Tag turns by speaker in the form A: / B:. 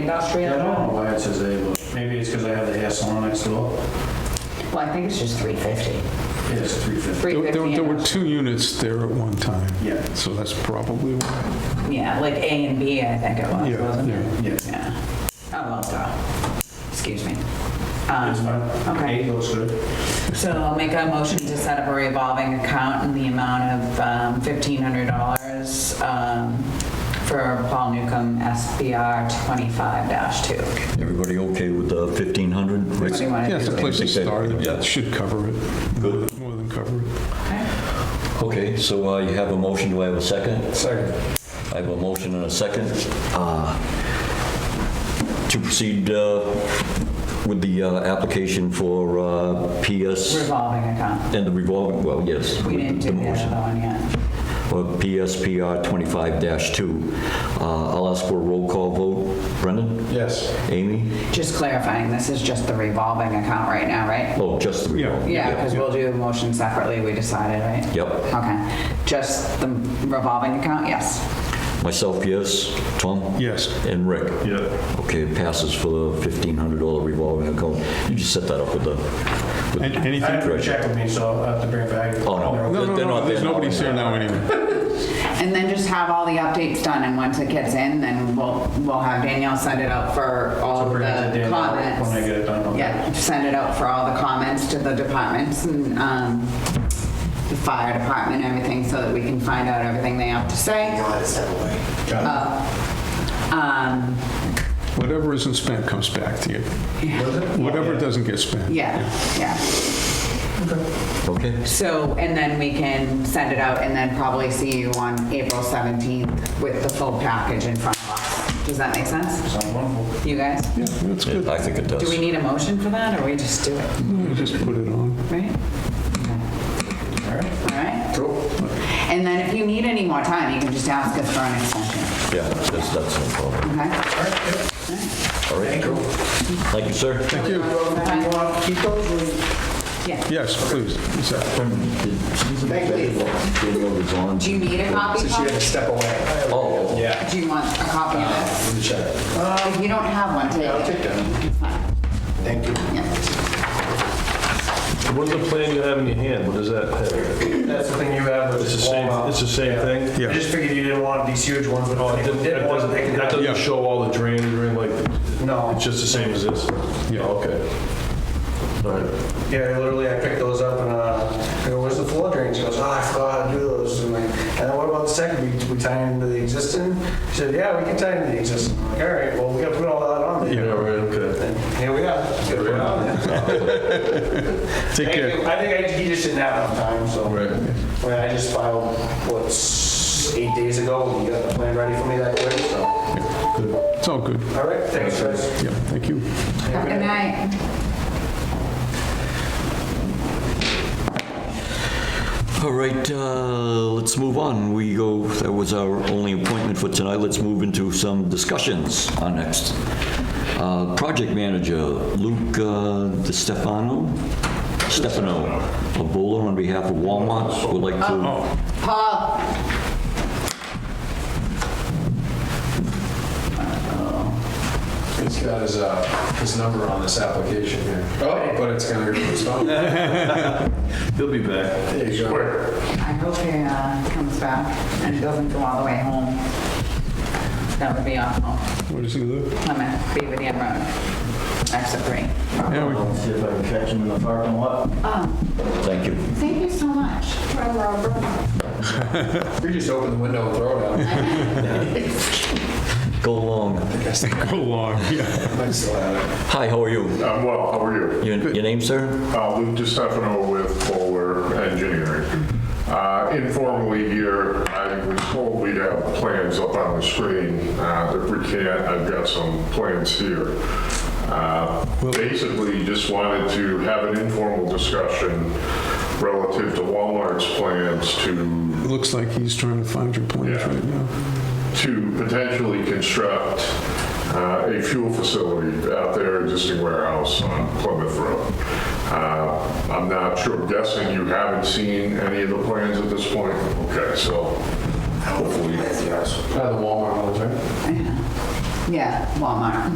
A: Industrial?
B: I don't know why it says A, but maybe it's because I have the hair salon next door.
A: Well, I think it's just 350.
B: It is 350.
C: There- There
A: 350
C: there were
A: industrial.
C: two units there at one time.
B: Yeah.
C: So that's probably why.
A: Yeah, like A and B, I think it was,
C: Yeah,
A: wasn't it?
B: Yeah,
A: Yeah. Oh, well, duh. Excuse me. Um,
B: it's fine.
A: Okay.
B: Eight looks good.
A: So I'll make a motion to set up a revolving account in the amount of um, $1,500 um, for Paul Newcomb SBR 25-2.
D: Everybody okay with the 1,500?
A: What do you
D: Rick?
A: want
C: Yeah,
A: to
C: it's
A: do?
C: a place to
D: They said-
C: start.
D: yeah.
C: It should cover it, more than- more than cover it.
D: Okay, so uh, you have a motion, do I have a second?
B: Second.
D: I have a motion and a second uh, to proceed uh, with the uh, application for uh, PS
A: Revolving account.
D: and the revolving, well, yes.
A: We
D: with
A: didn't
D: the
A: do the
D: motion. Uh,
A: other one yet.
D: Or PSPR 25-2. Uh, I'll ask for a roll call vote. Brendan?
B: Yes.
D: Amy?
A: Just clarifying, this is just the revolving account right now, right?
D: Oh, just the
C: Yeah.
D: revolving.
A: Yeah, because we'll do the motion separately, we decided, right?
D: Yep.
A: Okay, just the revolving account, yes.
D: Myself, yes. Tom?
C: Yes.
D: And Rick?
B: Yeah.
D: Okay, it passes for the $1,500 revolving account. You just set that up with the... with-
C: And
B: I
C: Anything?
B: have to check with me, so I'll have to bring it back.
D: Oh, no.
C: No, no,
D: They're
C: no,
D: not
C: there's
D: there now.
C: nobody here now anyway.
A: And then just have all the updates done, and once it gets in, then we'll, we'll have Danielle send it out for all
B: I'll
A: of
B: bring it to
A: the
B: Dan when I
A: comments.
B: get it done. okay?
A: Yeah, send it out for all the comments to the departments and, um, the fire department, and everything, so that we can find out everything they have to say.
B: Got
A: Um,
C: Whatever isn't spent comes back to you. Whatever doesn't get spent.
A: yeah, yeah.
D: Okay.
A: So, and then we can send it out and then probably see you on April 17th with the full package in front of us. Does that make
B: it.
A: sense?
B: Sounds wonderful.
A: You guys?
C: Yeah, that's good.
D: I think it
A: Do we
D: does.
A: need a motion for that or we just do it,
C: You Just put it on.
A: right? All right?
B: Cool.
A: And then if you need any more time, you can just ask us for an extension,
D: Yeah, that's, that's no problem.
A: okay?
D: All right. Thank you, sir.
C: Thank you.
A: Bye.
B: Keep those, will
A: Yeah.
C: Yes, please. Exactly.
A: Do you need a copy? Paul?
B: step away.
D: Oh,
B: Yeah.
A: Do you want a copy of this?
B: The check.
A: If you don't have one, take it. I'll take
B: Thank you.
E: What is the plan you have in your hand? What does that have?
B: That's the thing you have, but
E: It's the same, it's the same thing? Oh,
C: Yeah.
B: I just figured you didn't want these huge ones with all,
E: It doesn't-
B: did
E: It
B: ones,
E: doesn't-
B: they
E: it
B: can,
C: Yeah.
E: doesn't show all the drains or anything like,
B: no.
E: it's just the same as this?
C: Yeah.
E: Oh, Okay. All right.
B: Yeah, literally, I picked those up and uh, I go, where's the floor drain? She goes, oh, I forgot how to do those. And I'm like, and then what about the second? We, we tie into the existing? She said, yeah, we can tie into the existing. I'm like, all right, well, we got to put all that on
E: Yeah,
B: there.
E: right, okay.
B: And here we are. Let's get it on there.
C: Take
B: Thank
C: care.
B: you. I think I, he just didn't have enough time, so.
E: Right.
B: I mean, I just filed, what, s- eight days ago, and you got the plan ready for me that way, so.
C: It's all good.
B: All right, thanks, guys.
C: Yeah, thank you.
A: Have a good night.
D: all right, uh, let's move on. We go, that was our only appointment for tonight. Let's move into some discussions on next. Uh, Project manager, Luke uh, Di Stefano, Stefano, a bowler on behalf of Walmart, would like
E: Oh,
D: to,
A: Paul.
F: He's got his, uh, his number on this application here. Oh. But it's gonna be responded.
E: He'll be back.
F: There you go.
A: I hope he uh, comes back and doesn't go all the way home. That would be awful.
C: Where does he live?
A: I'm at Beaver Dam Road, exit three.
C: Yeah, we-
G: See if I can catch him in the parking lot.
D: thank you.
A: Thank you so much.
F: We just open the window and throw it out.
D: Go along.
C: Go along, yeah.
F: I still have it.
D: Hi, how are you?
H: I'm well, how are you?
D: Your your name, sir?
H: Uh, Luke DiStefano with Bowler Engineering. Uh, Informally here, I was told we'd have plans up on the screen. Uh, If we can't, I've got some plans here. Uh, Basically, just wanted to have an informal discussion relative to Walmart's plans to
C: It looks like he's trying to find your plans
H: Yeah.
C: right now.
H: to potentially construct uh, a fuel facility out there, existing warehouse on Plymouth Road. Uh, I'm not sure, guessing you haven't seen any of the plans at this point? Okay, so hopefully,
F: Yes. Uh, The Walmart ones, right?
A: Yeah, Walmart.